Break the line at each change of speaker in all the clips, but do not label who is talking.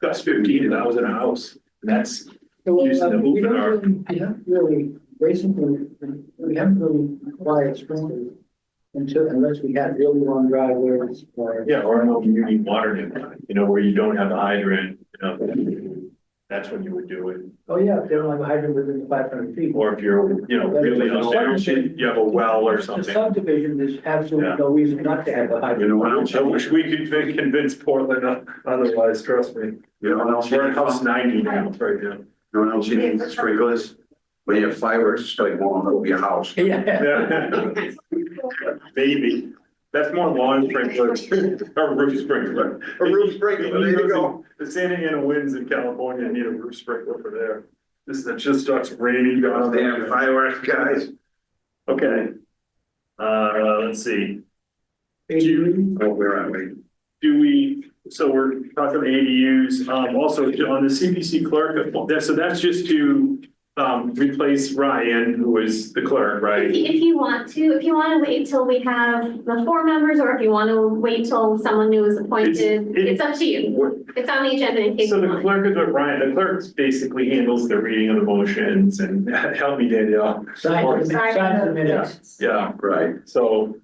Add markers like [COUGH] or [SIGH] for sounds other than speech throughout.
That's fifteen and I was in a house. And that's,
Well,
Using the
uh, we
open
don't
arc.
really- We haven't really, basically, we haven't really acquired sprinklers until, unless we had really long driveways or.
yeah, or no community water main, you know, where you don't have the hydrant, you know. That's when you would do it.
Oh, yeah, if they don't have a hydrant within five hundred feet.
Or if you're, you know, really up there, you have a well or something.
The subdivision, there's absolutely
Yeah.
no reason not to have a hydrant.
You know, I don't- I wish we could fin- convince Portland o- otherwise, trust me.
You know, what else you
We're in
need,
house
you
ninety now, right now.
know, what else you need sprinklers, when you have fireworks, it's like blowing over your house.
[LAUGHS] Yeah,
Yeah. [LAUGHS] Maybe, that's more lawn sprinklers, [LAUGHS] or roof sprinkler.
A roof sprinkler, there you go.
The San Diego winds in California need a roof sprinkler for there. This is, it just starts raining down
They have
there.
fireworks, guys.
Okay. Uh, let's see,
ADU,
Oh, where are we?
do we, so we're talking ADUs, um, also on the CPC clerk, that- so that's just to um, replace Ryan, who is the clerk, right?
If you- If you want to, if you want to wait till we have the four members, or if you want to wait till someone new is appointed,
it-
it's up to you.
What-
It's on the agenda in case
So
you
the
want.
clerk is what Ryan, the clerk basically handles the reading of the motions and [LAUGHS] help me Danielle.
sign the
Sorry.
sign the minutes.
Yeah,
Right, [LAUGHS]
so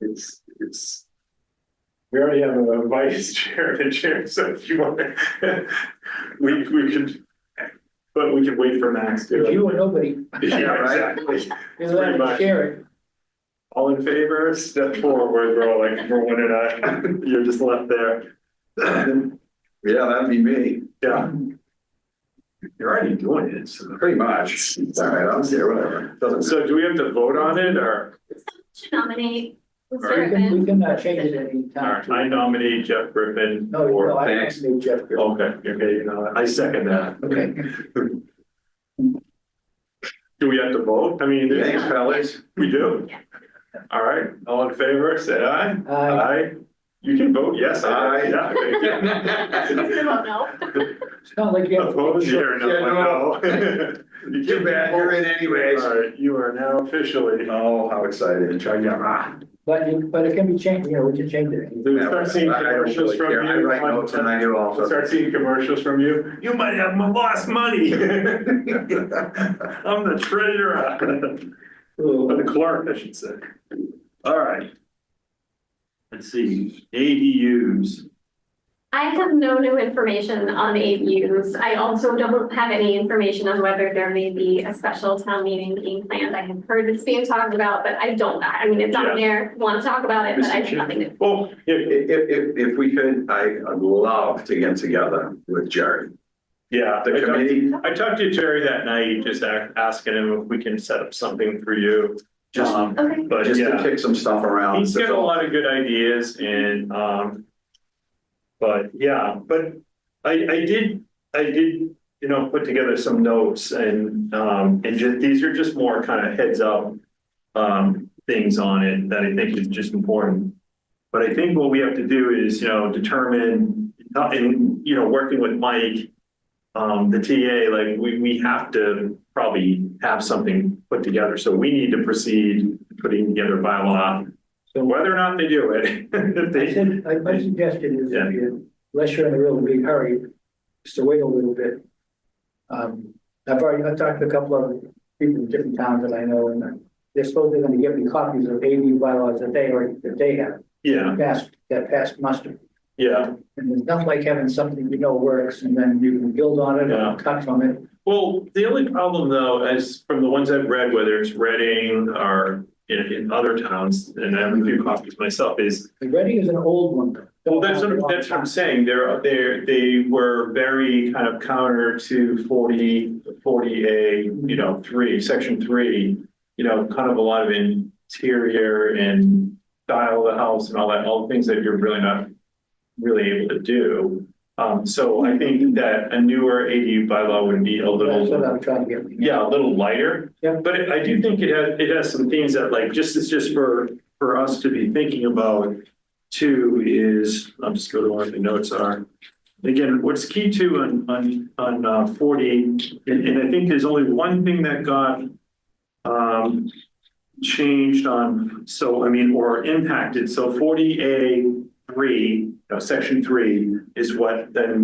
it's, it's. We already have a vice [LAUGHS] chair and a chair, so if you want, [LAUGHS] we, we could, but we could wait for Max
If
too.
you or nobody,
Yeah, exactly.
you let
Pretty
them
much.
share it.
All in favor, step forward, we're all like, we're one and I, [LAUGHS] you're just left there.
yeah, that'd be me,
Yeah,
you're already doing it, so pretty much, it's all right, I'm there, whatever, doesn't.
so do we have to vote on it or?
Someone should nominate Mr.
All right.
We can,
Griffin.
we can uh, change it any
All
time.
right, I Oh. nominate Jeff Griffin.
No,
for-
no, I
thanks.
don't need Jeff. Griffin.
Okay, okay, you know, I second that.
Okay.
Do we have to vote? I mean,
Thanks,
there's-
fellas, [LAUGHS]
we do.
Yeah.
All right, all in favor, say aye.
Uh,
Aye. You can vote yes.
Aye.
Yeah, thank
[LAUGHS]
You can vote no.
it's not like you
you.
have.
Opposed,
to-
you're
Yeah,
not, no. [LAUGHS] You
too
can
bad, you're in anyways.
All right, you are now officially. uh,
Oh, how excited, try to get, ah.
But you, but it can be changed, you know, we can change it.
Do we start seeing
I- I don't
commercials
really
from
care. I
you?
write notes and I do all sorts of-
Start seeing commercials from you? You might have m- lost money. [LAUGHS] I'm
[LAUGHS]
the treasurer. Or the clerk, I should say. All right. Let's see, ADUs.
I have no new information on ADUs. I also don't have any information on whether there may be a special town meeting being planned. I have heard it's being talked about, but I don't, I mean, it's
Yeah.
on there, want to talk about it, but I have nothing to.
Well, yeah,
If, if, if we could, I- I'd love to get together with Jerry,
yeah.
the committee,
I talked to Terry that night, just a- asking him if we can set up something for you.
just,
Um,
Okay,
But
just to
yeah,
kick some stuff around.
he's got
That's
a
all.
lot of good ideas and, um, but yeah, but I, I did, I did, you know, put together some notes and, um, and just, these are just more kind of heads up um, things on it that I think is just important. But I think what we have to do is, you know, determine, uh, and, you know, working with Mike, um, the TA, like, we, we have to probably have something put together. So we need to proceed putting together bylaw,
So
whether or not they do it. [LAUGHS] if
I
they-
said, I- my suggestion is,
Yeah.
if you- unless you're in a real big hurry, just to wait a little bit. Um, I've already, I've talked to a couple of people in different towns that I know, and they're supposedly gonna give me copies of AV bylaws that they, already that they have
Yeah,
passed, that passed muster.
yeah.
And it's not like having something you know works, and then you can build on it
Yeah.
and cut from it.
Well, the only problem though, as from the ones I've read, whether it's Reading or in, in other towns, and I have a few copies myself, is
The Reading is an old one.
Well, that's what, that's what I'm saying. They're, they're, they were very kind of counter to 40 40 A, you know, three, section three. You know, kind of a lot of interior and style of the house and all that, all the things that you're really not really able to do. Um, so I think that a newer ADU bylaw would be a little.
That's what I'm trying to get.
Yeah, a little lighter.
Yeah.
But it- I do think it has, it has some themes that like, just, it's just for, for us to be thinking about. Two is, I'll just go to where the notes are. Again, what's key to on, on, on uh, forty, and, and I think there's only one thing that got um, changed on, so, I mean, or impacted. So forty A three, no, section three is what then